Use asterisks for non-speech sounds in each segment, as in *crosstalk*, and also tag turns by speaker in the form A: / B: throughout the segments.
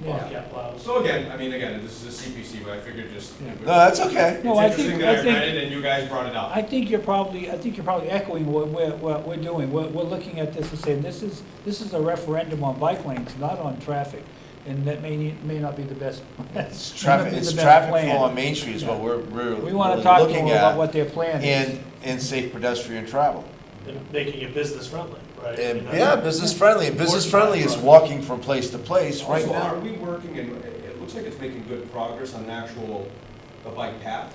A: Bobcat plows.
B: So again, I mean, again, this is a CPC, but I figured just.
A: Yeah.
B: it
C: No,
B: would-
C: that's okay.
B: It's
D: No, I
B: interesting
D: think-
B: that
D: I
B: I
D: think-
B: read it and you guys brought it up.
D: I think you're probably, I think you're probably echoing what we're, what we're doing. We're, we're looking at this and saying, this is, this is a referendum on bike lanes, not on traffic. And that may, need- may not be the best. *laughs*
C: It's
D: It's
C: traffic, it's traffic flow on Main Street is what we're, we're
D: We
C: really
D: want to talk to them
C: looking
D: about
C: at.
D: what their plan is.
C: And, and safe pedestrian travel.
A: And making it business friendly, right? I mean,
C: And,
A: that's-
C: yeah, business friendly, and business friendly is walking from place to place right
B: Also, are
C: now.
B: we working, and it it looks like it's making good progress on the actual, the bike path?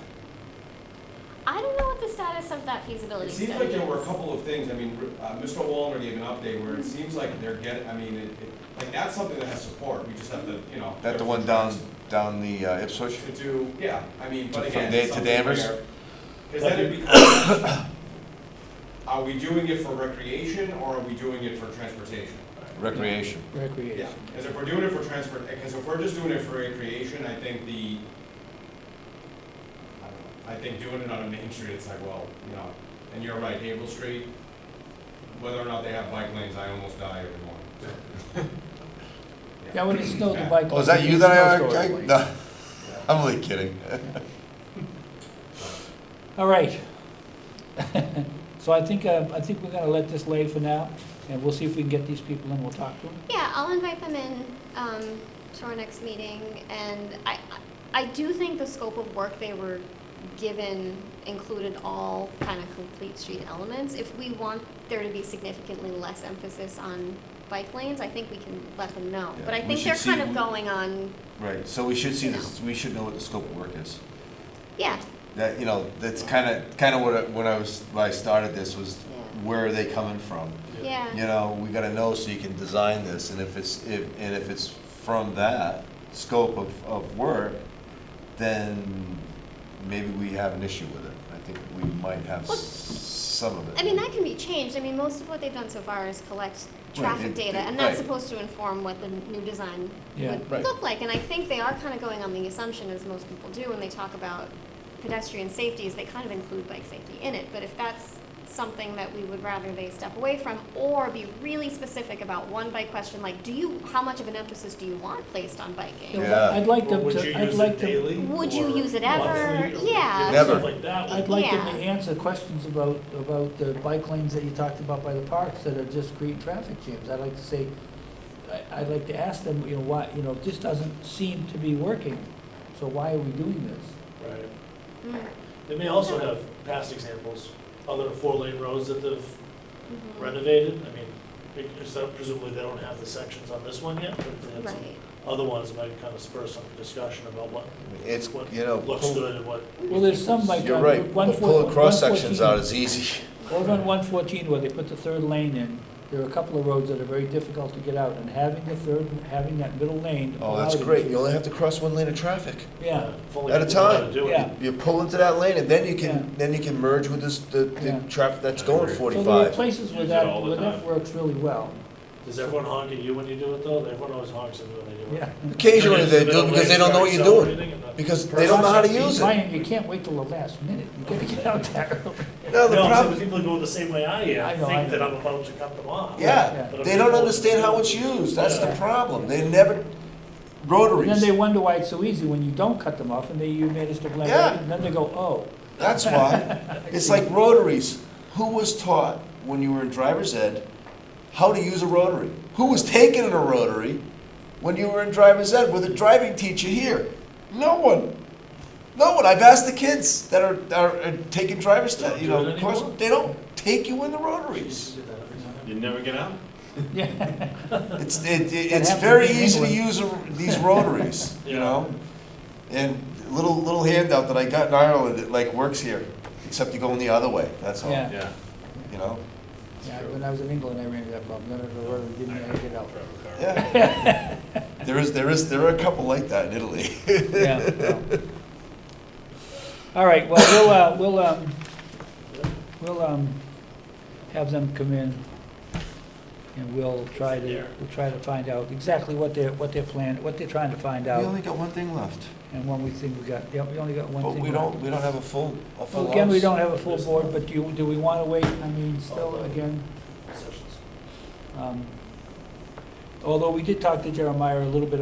E: I don't know what the status of that feasibility
B: It
E: study
B: seems like there were a
E: is.
B: couple of things, I mean, uh, Mr. Wallner gave an update where it seems like they're getting, I mean, it, it- like, that's something that has support, we just have to, you know.
C: That the one down, down the uh, Ipswich?
B: To do, yeah, I mean, but
C: From
B: again.
C: there
B: it's
C: to
B: something
C: Danvers?
B: where- Cause then it becomes, *coughs* are we doing it for recreation or are we doing it for transportation?
C: Recreation.
B: Yeah,
D: Recreation.
B: because if we're doing it for transport, because if we're just doing it for recreation, I think the, I don't know, I think doing it on a main street, it's like, well, you know, and you're right, Havel Street, whether or not they have bike lanes, I almost die every
F: *laughs*
B: morning. *laughs*
D: Yeah, when it snowed, the bike.
C: Oh, is that you that
D: snowstorm
C: I, I,
D: lane.
C: no, *laughs* I'm only kidding.
D: All right. *laughs* So I think, uh, I think we're gonna let this lay for now, and we'll see if we can get these people in, we'll talk to them.
E: Yeah, I'll invite them in um, to our next meeting, and I, I do think the scope of work they were given included all kind of complete street elements. If we want there to be significantly less emphasis on bike lanes, I think we can let them know.
C: Yeah,
E: But I
C: we
E: think
C: should
E: they're kind
C: see-
E: of going on,
C: Right, so we should see this, we should know what the scope of work is.
E: yeah,
C: That, you know, that's kind of, kind of what, I- when I was, when I started this was,
E: Yeah.
C: where are they coming from? You
E: yeah,
C: know, we gotta know so you can design this, and if it's, if, and if it's from that scope of, of work, then maybe we have an issue with it. I think we might have
E: Well,
C: s- some of it.
E: I mean, that can be changed. I mean, most of what they've done so far is collect
C: it-
E: traffic data, and that's
C: right.
E: supposed to inform what the new design
D: Yeah.
C: Right.
E: would look like. And I think they are kind of going on the assumption, as most people do, when they talk about pedestrian safety, is they kind of include bike safety in it. But if that's something that we would rather they step away from, or be really specific about one bike question, like, do you, how much of an emphasis do you want placed on biking?
C: Yeah.
D: I'd like
A: Or
D: them
A: would
D: to,
A: you
D: I'd
A: use
D: like
A: it
D: them.
A: daily?
E: Would you
A: or
E: use it ever?
A: monthly, or,
E: Yeah.
C: Never.
A: Stuff like that.
D: I'd like them to
E: Yeah.
D: answer questions about, about the bike lanes that you talked about by the parks that are just creating traffic jams. I'd like to say, I, I'd like to ask them, you know, why, you know, this doesn't seem to be working, so why are we doing this?
A: Right.
E: Mm,
A: They may also have past examples, other four lane roads that they've
E: mhm.
A: renovated. I mean, because that- presumably they don't have the sections on this one yet, but if they had some
E: Mm-hmm. Right.
A: other ones, it might kind of spur some discussion about what,
C: It's,
A: what
C: you know,
A: looks
C: pull-
A: good and what.
D: Well, there's some like.
C: you're
D: on
C: right,
D: Route 114
C: pulling cross sections out is easy. *laughs*
D: Over on one fourteen where they put the third lane in, there are a couple of roads that are very difficult to get out, and having the third, having that middle lane.
C: Oh, that's
D: allowed it-
C: great, you only have to cross one lane of traffic.
D: Yeah,
A: if only
C: At a
A: people knew how to
C: time.
A: do it.
D: Yeah.
C: You pull into that lane, and then you
D: Yeah.
C: can, then you can merge with this, the,
D: Yeah.
C: the traffic that's going
D: so there are
C: forty-five.
D: places where
F: Use it
D: that,
F: all the
D: where that
F: time.
D: works really well,
A: Does everyone honk at you when you do it though? Everyone always honks at you when they do it.
D: yeah.
C: Occasionally they do, because they don't know what you're doing, because they don't know how to use it.
D: Ryan, you can't wait till the last minute, you gotta get out there.
C: No, the
A: No, I'm saying
C: problem,
A: the people who go the same way I
D: I
A: am,
D: know, I
A: think that
D: know.
A: I'm about to cut them off.
C: Yeah,
A: But
C: they
A: I'm
C: don't
A: able-
C: understand how it's used, that's the
A: Yeah.
C: problem, they never,
D: And then they
C: rotaries,
D: wonder why it's so easy when you don't cut them off, and they, you made us to blame,
C: Yeah.
D: and then they go,
C: *laughs*
D: oh.
C: that's why. It's like rotaries, who was taught when you were in driver's ed how to use a rotary? Who was taken in a rotary when you were in driver's ed with a driving teacher here? No one. No one, I've asked the kids that are, are are taking driver's,
A: They don't
C: ed, you
A: do
C: know,
A: it
C: course,
A: anymore?
C: they don't take you in the
A: Used
C: rotaries.
A: to do that every time.
F: You never get out?
D: Yeah,
C: It's, it, it-
D: That
C: it's
D: happened
C: very
D: in
C: easy to
D: England. *laughs*
C: use a- these rotaries, you
A: Yeah.
C: know? And little, little handout that I got in Ireland, it like works here, except you're going the other way, that's all,
D: Yeah.
C: you
F: Yeah.
C: know?
D: Yeah, when I was in England, I ran into that problem, none of the road, didn't know how to get out.
C: Yeah.
D: *laughs*
C: There is, there is, there are a couple like that in Italy.
D: Yeah. well. All right, well, we'll, uh, we'll, um, we'll, um, have them come in and we'll try to, we'll try to find out exactly what they're, what they're plan, what they're trying to find
C: We
D: out.
C: only got one thing left,
D: And one we think we got, yeah, we only got one
C: but
D: thing.
C: we
D: left.
C: don't, we don't have a full, a full
D: Well, again, we
C: house.
D: don't have a full board, but do, you- do we wanna wait, I mean, still, again,
A: Sessions.
D: um, although we did talk to Jeremiah a little bit